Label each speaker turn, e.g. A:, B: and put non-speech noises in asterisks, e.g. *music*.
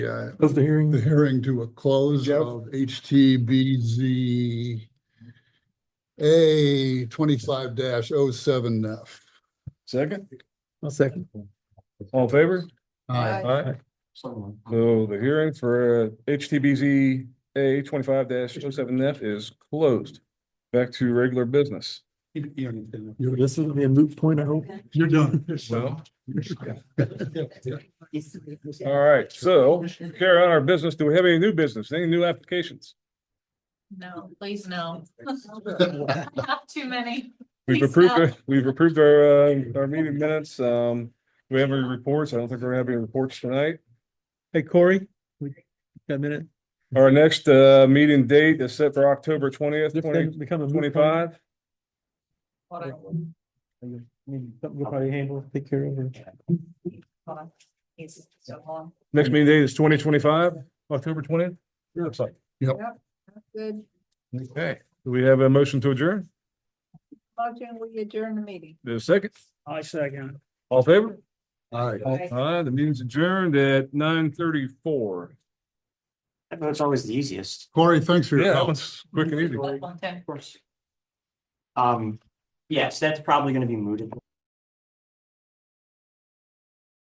A: Yeah,
B: Close the hearing.
A: the hearing to a close
B: Jeff?
A: of HTBZ A twenty-five 7 F.
C: Second,
B: I'll second.
C: all in favor?
D: Aye.
C: Aye. So the hearing for uh, HTBZ A twenty-five 7 F is closed. Back to regular business.
B: You're listening to a moot point, I hope.
A: You're done.
C: Well, all right, so carry on our business. Do we have any new business, any new applications?
D: No, please *laughs* no. Not too many.
C: We've
D: Please, uh,
C: approved, *laughs* we've approved our, uh, our meeting minutes. Um, do we have any reports? I don't think we're gonna have any reports tonight.
B: Hey, Corey, we got a minute.
C: Our next, uh, meeting date is set for October twentieth,
B: This
C: twenty
B: thing become a moot point.
C: twenty-five.
B: Something we'll probably handle, take care of it.
D: Hold on. He's still on.
C: Next meeting date is twenty twenty-five, October twentieth. Looks like.
D: Good.
C: Okay, do we have a motion to adjourn?
D: Motion, we adjourn the meeting.
C: The second,
B: I second.
C: all in favor?
A: All right.
D: Aye.
C: Uh, the meeting's adjourned at nine thirty-four.
E: I know it's always the easiest,
A: Corey, thanks for
C: Yeah,
A: your
C: that
A: help.
C: one's quick and easy.
D: Up on ten.
E: of course. Um, yes, that's probably gonna be mooted.